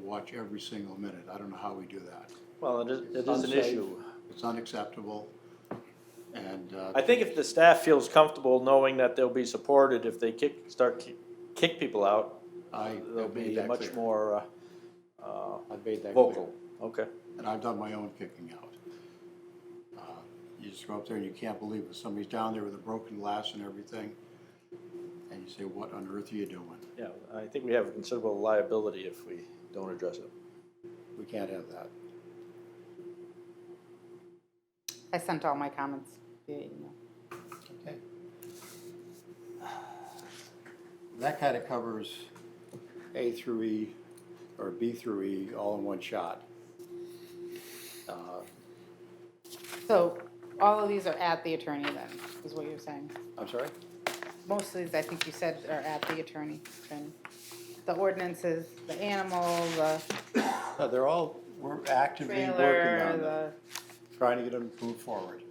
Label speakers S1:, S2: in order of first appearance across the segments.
S1: watch every single minute. I don't know how we do that.
S2: Well, it is, it is an
S1: Unsafe.
S2: issue.
S1: It's unacceptable. And,
S2: I
S1: uh,
S2: think if the staff feels comfortable knowing that they'll be supported if they kick, start ki- kick people out,
S1: I
S2: they'll
S1: I've made
S2: be
S1: that
S2: much
S1: clear.
S2: more uh,
S1: I've made
S2: uh,
S1: that clear.
S2: vocal. Okay.
S1: And I've done my own kicking out. Uh, You just go up there and you can't believe it. Somebody's down there with a broken glass and everything. And you say, what on earth are you doing?
S2: Yeah, I think we have considerable liability if we don't address it.
S1: We can't have that.
S3: I sent all my comments via email.
S1: Okay. That kind of covers A through E, or B through E, all in one shot. Uh,
S3: So all of these are at the attorney then, is what you're saying?
S1: I'm sorry?
S3: Most of these, I think you said, are at the attorney. then. The ordinances, the animal, the
S1: No, They're all, we're actively working
S3: trailer,
S1: on them,
S3: the,
S1: trying to get them to move forward.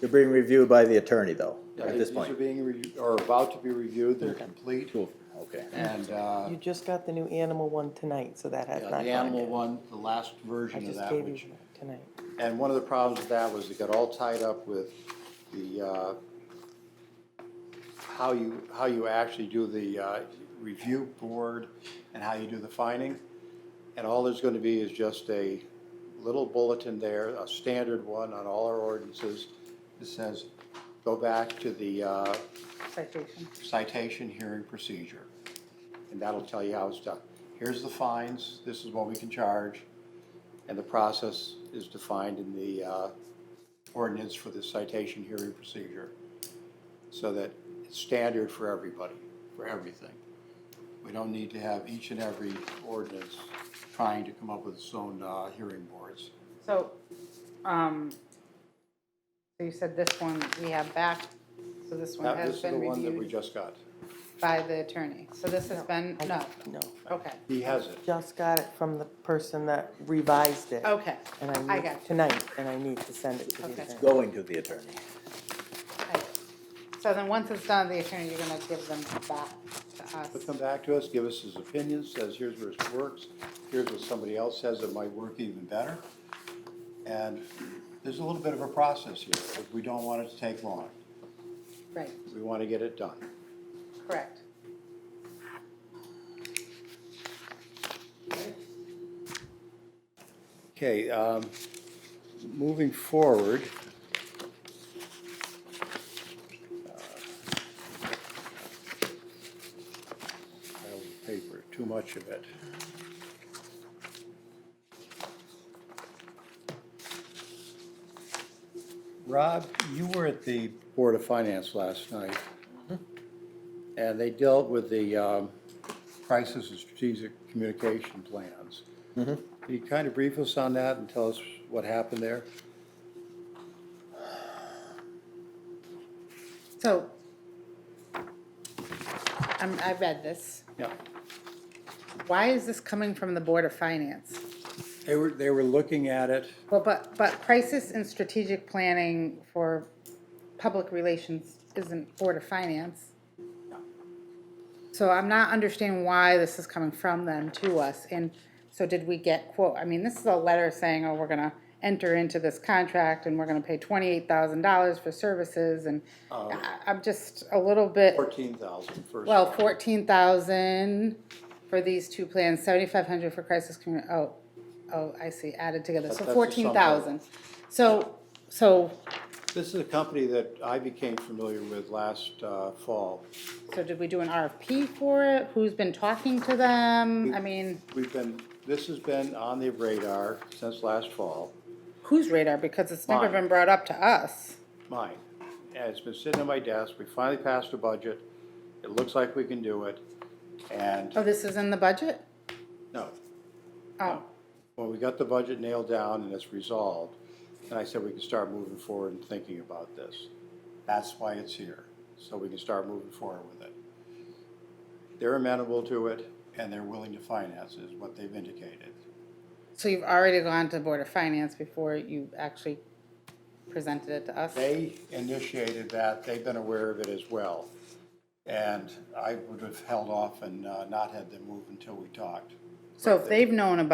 S4: They're being reviewed by the attorney, though,
S1: Yeah,
S4: at this
S1: These are
S4: point.
S1: being, re- or about to be reviewed, they're complete,
S4: Okay.
S1: and, uh,
S5: You just got the new animal one tonight, so that
S1: yeah,
S5: has
S1: the
S5: not gone
S1: animal
S5: yet.
S1: one, the last version of
S5: I just
S1: that,
S5: gave
S1: which,
S5: you that tonight.
S1: and one of the problems with that was it got all tied up with the, uh, how you, how you actually do the, uh, review board and how you do the finding. And all there's gonna be is just a little bulletin there, a standard one on all our ordinances that says, go back to the, uh,
S3: citation.
S1: citation hearing procedure. And that'll tell you how it's done. Here's the fines, this is what we can charge, and the process is defined in the uh, ordinance for the citation hearing procedure. So that it's standard for everybody, for everything. We don't need to have each and every ordinance trying to come up with its own uh, hearing boards.
S3: So, um, so you said this one we have back, so this one
S1: That-
S3: has been
S1: This is the one that we
S3: reviewed
S1: just got.
S3: by the attorney. So this has been,
S5: I-
S3: no,
S5: No,
S3: okay,
S1: He has it.
S5: just got it from the person that revised it.
S3: okay.
S5: And I
S3: I
S5: need,
S3: got you.
S5: tonight, and I need to send it to
S3: Okay.
S5: the attorney.
S4: Going to the attorney.
S3: Right. So then, once it's done, the attorney, you're gonna give them back to us.
S1: He'll come back to us, give us his opinion, says here's where it works, here's what somebody else says that might work even better. And there's a little bit of a process here, but we don't want it to take long.
S3: Right,
S1: We want to get it done.
S3: correct.
S1: Okay, um, moving forward. uh, pile of Paper, too much of it. Rob, you were at the Board of Finance last night. And they dealt with the, um, crisis and strategic communication plans. Can you kind of brief us on that and tell us what happened there?
S3: So, I'm, I read this.
S1: Yeah.
S3: Why is this coming from the Board of Finance?
S1: They were, they were looking at it,
S3: Well, but, but crisis and strategic planning for public relations isn't Board of Finance. So I'm not understanding why this is coming from them to us, and so did we get quote, I mean, this is a letter saying, oh, we're gonna enter into this contract and we're gonna pay twenty-eight thousand dollars for services, and I- I'm just a little bit.
S1: fourteen thousand first.
S3: Well, fourteen thousand for these two plans, seventy-five hundred for crisis commu, oh, oh, I see, added together,
S1: That-
S3: so
S1: that's a
S3: fourteen thousand. So, so,
S1: This is a company that I became familiar with last uh, fall.
S3: so did we do an RFP for it? Who's been talking to them? I mean,
S1: We've been, this has been on the radar since last fall,
S3: whose radar, because it's never
S1: Mine.
S3: been brought up to us.
S1: mine. And it's been sitting on my desk, we finally passed a budget, it looks like we can do it, and,
S3: Oh, this is in the budget?
S1: no,
S3: Oh,
S1: Well, we got the budget nailed down and it's resolved, and I said we can start moving forward and thinking about this. That's why it's here, so we can start moving forward with it. They're amenable to it, and they're willing to finance is what they've indicated.
S3: so you've already gone to the Board of Finance before you actually presented it to us?
S1: They initiated that, they've been aware of it as well, and I would have held off and uh, not had them move until we talked.
S3: So if they've known about